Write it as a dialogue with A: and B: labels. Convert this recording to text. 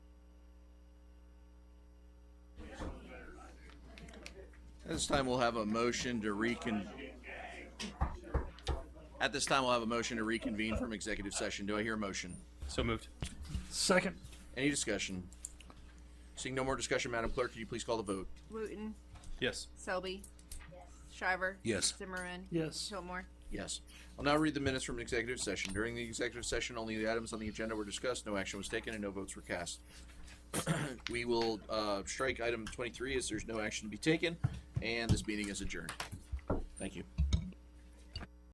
A: This time we'll have a motion to recon. At this time, we'll have a motion to reconvene from executive session. Do I hear a motion?
B: So moved.
C: Second.
A: Any discussion? Seeing no more discussion, Madam Clerk, could you please call the vote?
D: Wooten,
B: Yes.
D: Selby, Shriver.
A: Yes.
D: Zimmerman.
C: Yes.
D: Pillmore.
A: Yes. I'll now read the minutes from an executive session. During the executive session, only the items on the agenda were discussed, no action was taken, and no votes were cast. We will uh, strike item 23 as there's no action to be taken, and this meeting is adjourned. Thank you.